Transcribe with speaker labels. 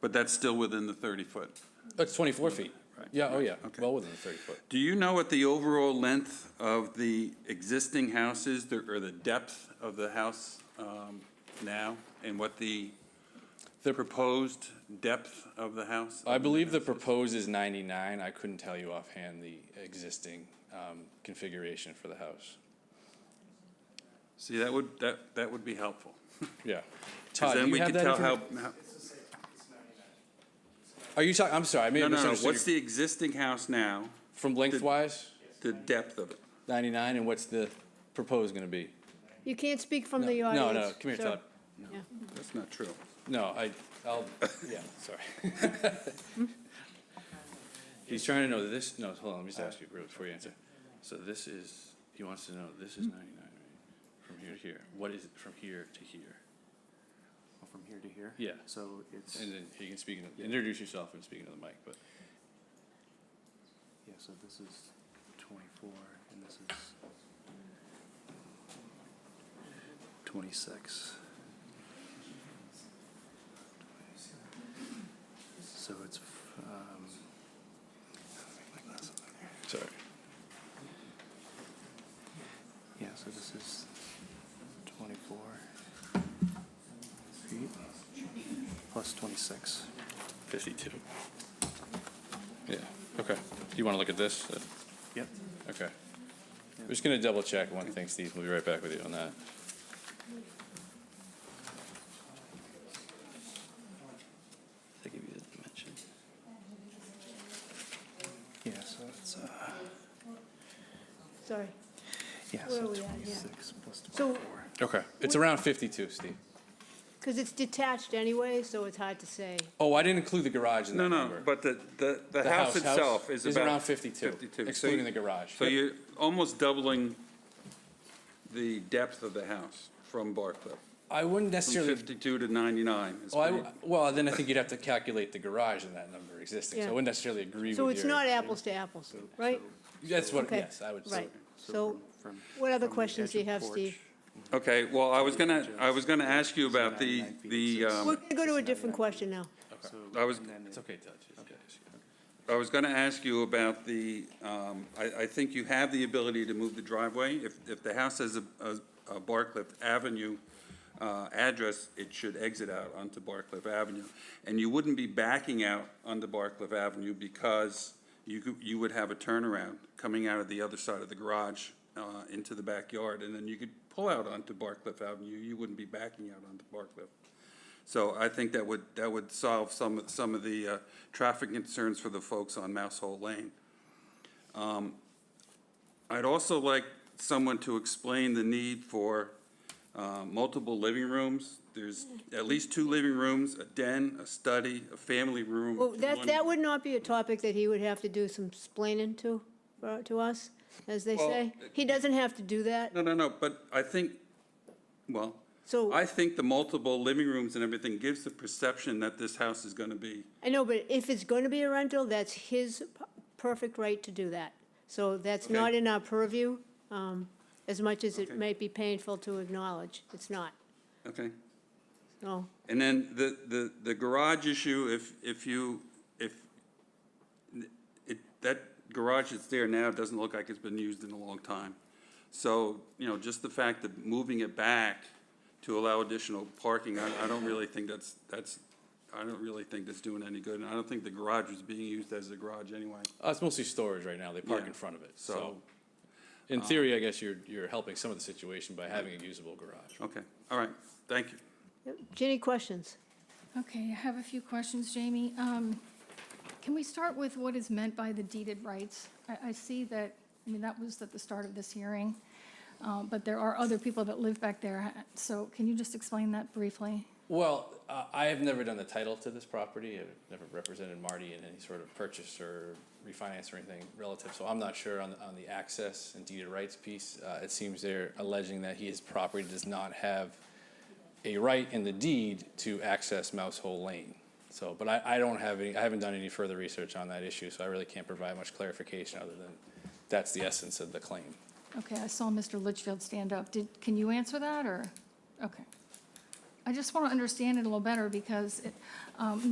Speaker 1: But that's still within the 30-foot.
Speaker 2: That's 24 feet.
Speaker 1: Right.
Speaker 2: Yeah, oh yeah,
Speaker 1: Okay.
Speaker 2: well within the 30 foot.
Speaker 1: Do you know what the overall length of the existing house is, the- or the depth of the house um, now? And what the the proposed depth of the house?
Speaker 2: I believe the proposed is 99. I couldn't tell you offhand the existing um, configuration for the house.
Speaker 1: See, that would, that that would be helpful. 'Cause
Speaker 2: Yeah. Todd, do
Speaker 1: then
Speaker 2: you
Speaker 1: we
Speaker 2: have
Speaker 1: could
Speaker 2: that
Speaker 1: tell
Speaker 2: informa-
Speaker 1: how. how-
Speaker 2: Are you talking, I'm sorry, I may
Speaker 1: No,
Speaker 2: have
Speaker 1: no, no, what's
Speaker 2: misunderstood.
Speaker 1: the existing house now,
Speaker 2: your- From lengthwise,
Speaker 1: the depth of it?
Speaker 2: 99, and what's the proposed going to be?
Speaker 3: You can't speak from the audience.
Speaker 2: No, no, come here,
Speaker 3: so-
Speaker 2: Todd.
Speaker 3: yeah.
Speaker 1: That's not true.
Speaker 2: No, I, I'll, yeah, sorry. He's trying to know this, no, hold on, let me just ask you real- before you answer. So this is, he wants to know, this is ninety-nine, right? From here to here, what is it from here to here?
Speaker 4: Well, From here to here?
Speaker 2: Yeah.
Speaker 4: So it's,
Speaker 2: And then you can speak, into- introduce yourself and speak into the mic, but
Speaker 4: yeah, so this is twenty-four and this is twenty-six. So it's, f- um, how do I make my glasses look?
Speaker 2: sorry.
Speaker 4: yeah, so this is twenty-four feet plus twenty-six.
Speaker 2: Fifty-two. Yeah, okay. Do you want to look at this? Uh,
Speaker 4: Yep.
Speaker 2: Okay. We're just gonna double check one thing, Steve. We'll be right back with you on that.
Speaker 4: They give you the dimension. Yeah, so it's, uh,
Speaker 3: Sorry.
Speaker 4: yeah,
Speaker 3: Where
Speaker 4: so
Speaker 3: are we at? Yeah.
Speaker 4: twenty-six plus
Speaker 3: So-
Speaker 4: twenty-four.
Speaker 2: Okay, it's around fifty-two, Steve.
Speaker 3: Because it's detached anyway, so it's hard to say.
Speaker 2: Oh, I didn't include the garage in that
Speaker 1: No, no,
Speaker 2: number.
Speaker 1: but the, the, the house itself is about.
Speaker 2: around 52,
Speaker 1: 52. So
Speaker 2: excluding
Speaker 1: you-
Speaker 2: the garage.
Speaker 1: So you're almost doubling the depth of the house from Barclay,
Speaker 2: I wouldn't
Speaker 1: from
Speaker 2: necessarily.
Speaker 1: 52 to 99. It's
Speaker 2: Well, I
Speaker 1: pretty-
Speaker 2: w well, then I think you'd have to calculate the garage in that number existing. So I
Speaker 3: Yeah.
Speaker 2: wouldn't necessarily agree
Speaker 3: So
Speaker 2: with
Speaker 3: it's
Speaker 2: your-
Speaker 3: not apples to apples, right?
Speaker 2: That's what.
Speaker 3: Okay.
Speaker 2: Yes, I would. say.
Speaker 3: Right. So
Speaker 4: from-
Speaker 3: what other
Speaker 4: from the
Speaker 3: questions
Speaker 4: edge
Speaker 3: do you
Speaker 4: of
Speaker 3: have,
Speaker 4: porch.
Speaker 3: Steve?
Speaker 1: Okay, well, I was gonna, I was gonna ask you about the, the,
Speaker 3: We're
Speaker 1: um,
Speaker 3: going to go to a different question now.
Speaker 4: So-
Speaker 1: I was-
Speaker 4: and then
Speaker 2: It's
Speaker 4: it-
Speaker 2: okay, Todd. It's okay.
Speaker 1: I was gonna ask you about the, um, I, I think you have the ability to move the driveway. If, if the house has a, a- a Barcliff Avenue, uh, address, it should exit out onto Barcliff Avenue. And you wouldn't be backing out onto Barcliff Avenue because you, could- you would have a turnaround coming out of the other side of the garage, uh, into the backyard, and then you could pull out onto Barcliff Avenue. You wouldn't be backing out onto Barcliff. So I think that would, that would solve some, some of the uh, traffic concerns for the folks on Mouse Hole Lane. Um, I'd also like someone to explain the need for uh, multiple living rooms. There's at least two living rooms, a den, a study, a family room.
Speaker 3: Well, Oh, that,
Speaker 1: one-
Speaker 3: that would not be a topic that he would have to do some explaining to, for- to us, as they
Speaker 1: Well,
Speaker 3: say. He doesn't have to do that,
Speaker 1: No, no, no, but I think, well,
Speaker 3: so,
Speaker 1: I think the multiple living rooms and everything gives the perception that this house is going to be
Speaker 3: I know, but if it's going to be a rental, that's his p- perfect right to do that. So that's
Speaker 1: Okay.
Speaker 3: not in our purview, um, as much as it
Speaker 1: Okay.
Speaker 3: may be painful to acknowledge, it's not,
Speaker 1: okay?
Speaker 3: so.
Speaker 1: And then the, the, the garage issue, if, if you, if, it, that garage that's there now doesn't look like it's been used in a long time. So, you know, just the fact that moving it back to allow additional parking, I, I don't really think that's, that's, I don't really think that's doing any good. And I don't think the garage was being used as a garage anyway.
Speaker 2: Uh, it's mostly storage right now. They park
Speaker 1: Yeah.
Speaker 2: in front of it. So,
Speaker 1: So- um,
Speaker 2: in theory, I guess you're you're helping some of the situation by having a usable garage.
Speaker 1: Okay, all right, thank you.
Speaker 3: Jenny, questions?
Speaker 5: Okay, I have a few questions, Jamie. Um, Can we start with what is meant by the deeded rights? I, I see that, I mean, that was at the start of this hearing, uh, but there are other people that live back there, so can you just explain that briefly?
Speaker 2: Well, uh, I have never done the title to this property. I've never represented Marty in any sort of purchase or refinance or anything relative. So I'm not sure on, on the access and deed of rights piece. Uh, it seems they're alleging that his property does not have a right in the deed to access Mouse Hole Lane. So, but I, I don't have any, I haven't done any further research on that issue, so I really can't provide much clarification other than that's the essence of the claim.
Speaker 5: Okay, I saw Mr. Litchfield stand up. Did, can you answer that, or? Okay. I just want to understand it a little better, because it, um,